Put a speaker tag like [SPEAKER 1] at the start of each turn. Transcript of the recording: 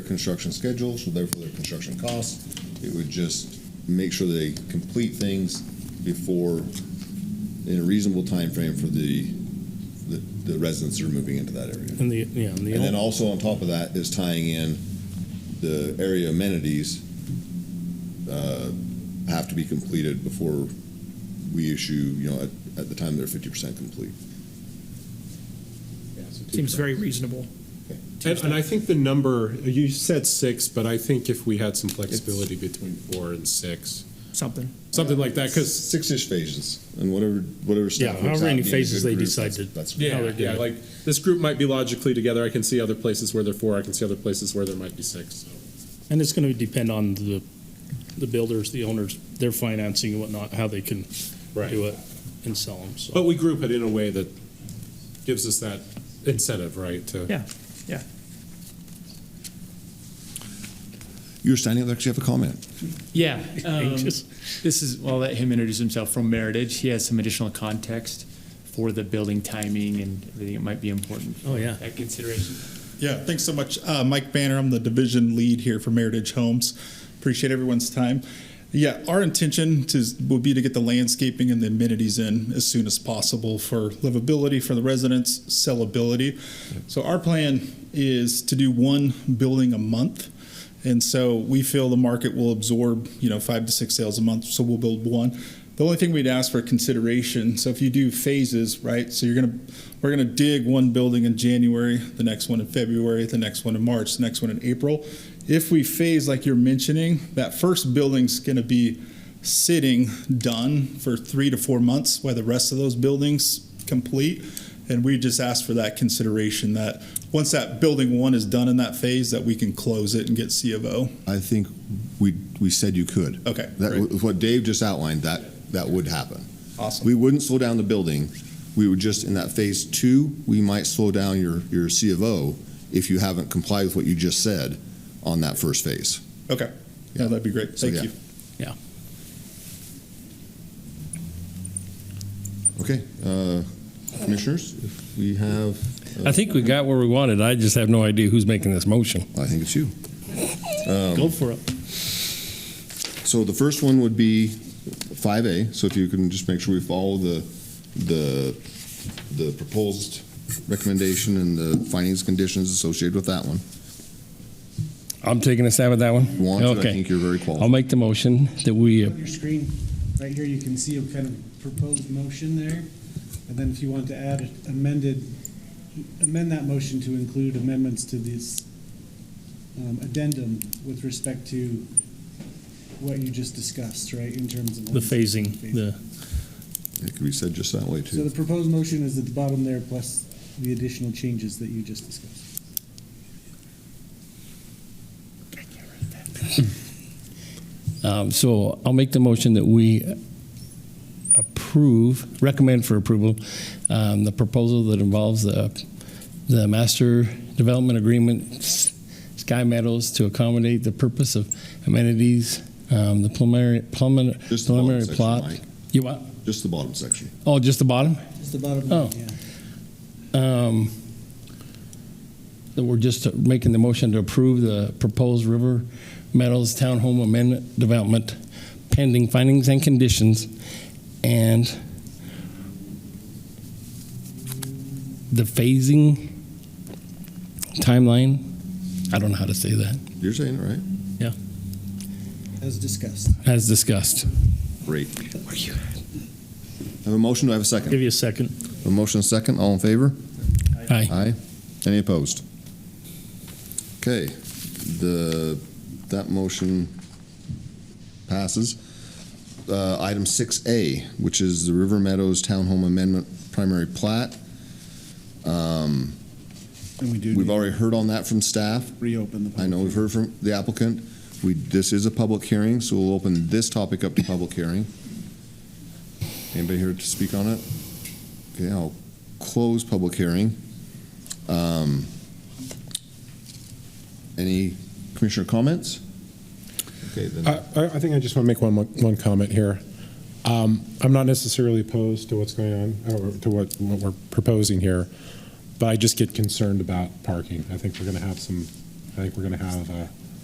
[SPEAKER 1] construction schedule, so therefore their construction costs. It would just make sure they complete things before, in a reasonable time frame for the, the the residents that are moving into that area.
[SPEAKER 2] And the, yeah, and the,
[SPEAKER 1] And then
[SPEAKER 2] ol-
[SPEAKER 1] also on top of that is tying in the area amenities uh, have to be completed before we issue, you know, at, at the time they're fifty percent complete.
[SPEAKER 3] Seems very reasonable.
[SPEAKER 4] And, and I think the number, you said six, but I think if we had some flexibility between four and six,
[SPEAKER 3] Something.
[SPEAKER 4] something like that, because,
[SPEAKER 1] Six-ish phases and whatever, whatever. staff
[SPEAKER 2] Yeah,
[SPEAKER 1] works
[SPEAKER 2] however
[SPEAKER 1] out
[SPEAKER 2] many
[SPEAKER 1] being a
[SPEAKER 2] phases
[SPEAKER 1] good
[SPEAKER 2] they
[SPEAKER 1] group,
[SPEAKER 2] decide
[SPEAKER 1] that's-
[SPEAKER 2] to-
[SPEAKER 1] That's.
[SPEAKER 2] how
[SPEAKER 4] yeah,
[SPEAKER 2] they're
[SPEAKER 4] yeah,
[SPEAKER 2] doing.
[SPEAKER 4] like, this group might be logically together. I can see other places where they're four, I can see other places where there might be six, so.
[SPEAKER 2] and it's going to depend on the, the builders, the owners, their financing and whatnot, how they can do it and sell them, so.
[SPEAKER 4] But we group it in a way that gives us that incentive, right, to.
[SPEAKER 3] Yeah, yeah.
[SPEAKER 1] You were standing up there because you have a comment.
[SPEAKER 5] Yeah. um,
[SPEAKER 2] Just-
[SPEAKER 5] This is, I'll let him introduce himself from Meritage. He has some additional context for the building timing and everything. It might be important. for
[SPEAKER 2] Oh, yeah.
[SPEAKER 5] That consideration.
[SPEAKER 6] Yeah, thanks so much. Uh, Mike Banner, I'm the division lead here for Meritage Homes. Appreciate everyone's time. Yeah, our intention to, would be to get the landscaping and the amenities in as soon as possible for livability for the residents, sellability. So our plan is to do one building a month. And so we feel the market will absorb, you know, five to six sales a month, so we'll build one. The only thing we'd ask for consideration, so if you do phases, right? So you're gonna, we're gonna dig one building in January, the next one in February, the next one in March, the next one in April. If we phase like you're mentioning, that first building's gonna be sitting done for three to four months while the rest of those buildings complete. And we just ask for that consideration that once that building one is done in that phase, that we can close it and get C of O.
[SPEAKER 1] I think we, we said you could.
[SPEAKER 6] Okay,
[SPEAKER 1] That,
[SPEAKER 6] great.
[SPEAKER 1] was what Dave just outlined, that, that would happen.
[SPEAKER 6] Awesome.
[SPEAKER 1] We wouldn't slow down the building. We would just, in that phase two, we might slow down your, your C of O if you haven't complied with what you just said on that first phase.
[SPEAKER 6] Okay. Yeah, that'd be great.
[SPEAKER 1] So,
[SPEAKER 6] Thank
[SPEAKER 1] yeah.
[SPEAKER 6] you.
[SPEAKER 1] Okay, uh, commissioners, if we have,
[SPEAKER 7] I think we got where we wanted. I just have no idea who's making this motion.
[SPEAKER 1] I think it's you.
[SPEAKER 2] Go for it.
[SPEAKER 1] So the first one would be five A, so if you can just make sure we follow the, the, the proposed recommendation and the findings, conditions associated with that one.
[SPEAKER 7] I'm taking a stab at that one.
[SPEAKER 1] If you want to, I
[SPEAKER 7] Okay.
[SPEAKER 1] think you're very qualified.
[SPEAKER 7] I'll make the motion that we, uh,
[SPEAKER 8] On your screen, right here, you can see a kind of proposed motion there. And then if you want to add amended, amend that motion to include amendments to this um, addendum with respect to what you just discussed, right, in terms of.
[SPEAKER 2] The phasing, the,
[SPEAKER 1] It could be said just that way
[SPEAKER 8] So
[SPEAKER 1] too.
[SPEAKER 8] the proposed motion is at the bottom there, plus the additional changes that you just discussed.
[SPEAKER 7] um, so I'll make the motion that we approve, recommend for approval, um, the proposal that involves the, the master development agreement, S- Sky Meadows, to accommodate the purpose of amenities, um, the preliminary, preliminary
[SPEAKER 1] Just the bottom
[SPEAKER 7] preliminary
[SPEAKER 1] section,
[SPEAKER 7] plot.
[SPEAKER 1] Mike.
[SPEAKER 7] You what?
[SPEAKER 1] Just the bottom section.
[SPEAKER 7] Oh, just the bottom?
[SPEAKER 8] Just the bottom
[SPEAKER 7] Oh.
[SPEAKER 8] line, yeah.
[SPEAKER 7] um, that we're just making the motion to approve the proposed River Meadows Townhome Amendment Development pending findings and conditions and the phasing timeline. I don't know how to say that.
[SPEAKER 1] You're saying it right?
[SPEAKER 8] As discussed.
[SPEAKER 7] As discussed.
[SPEAKER 1] Great. I have a motion, do I have a second?
[SPEAKER 2] give you a second.
[SPEAKER 1] A motion and a second, all in favor?
[SPEAKER 7] Aye.
[SPEAKER 1] Aye. Any opposed? Okay, the, that motion passes. Uh, Item 6A, which is the River Meadows Townhome Amendment Primary Plat. Um,
[SPEAKER 8] And we do
[SPEAKER 1] We've already heard on that from staff.
[SPEAKER 8] reopen the.
[SPEAKER 1] I know we've heard from the applicant. We, this is a public hearing, so we'll open this topic up to public hearing. Anybody here to speak on it? Okay, I'll close public hearing. Um, Any commissioner comments? Okay, then,
[SPEAKER 4] I, I I think I just want to make one, mo- one comment here. Um, I'm not necessarily opposed to what's going on, or to what, what we're proposing here, but I just get concerned about parking. I think we're going to have some I think we're going to have a